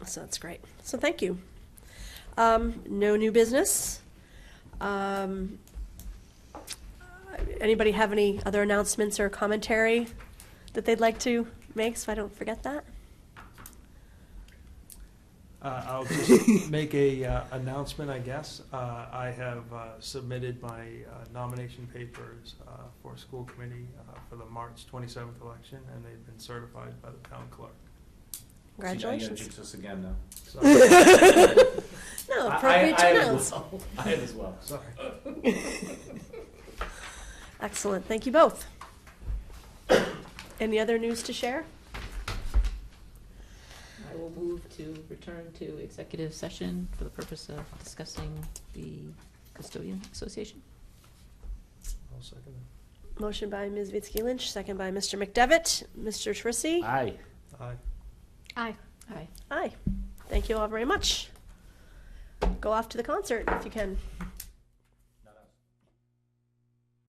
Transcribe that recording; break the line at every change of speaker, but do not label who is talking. so that's great. So thank you. Um, no new business. Um, anybody have any other announcements or commentary that they'd like to make so I don't forget that?
Uh, I'll just make a uh, announcement, I guess. Uh, I have uh, submitted my uh, nomination papers uh, for school committee uh, for the March 27th election, and they've been certified by the town clerk.
Congratulations.
See, now you gotta jinx us again, though.
So,
No,
I- I-
appropriate to
I am
announce.
as well. I am as well.
Sorry.
Excellent, thank you both. Any other news to share?
I will move to return to executive session for the purpose of discussing the custodian association.
I'll second
Motion by Ms. Vitsky Lynch, second by Mr. McDevitt. Mr. Trissy?
Aye.
that. Aye.
Aye. Aye.
Aye. Thank you all very much. Go off to the concert if you can.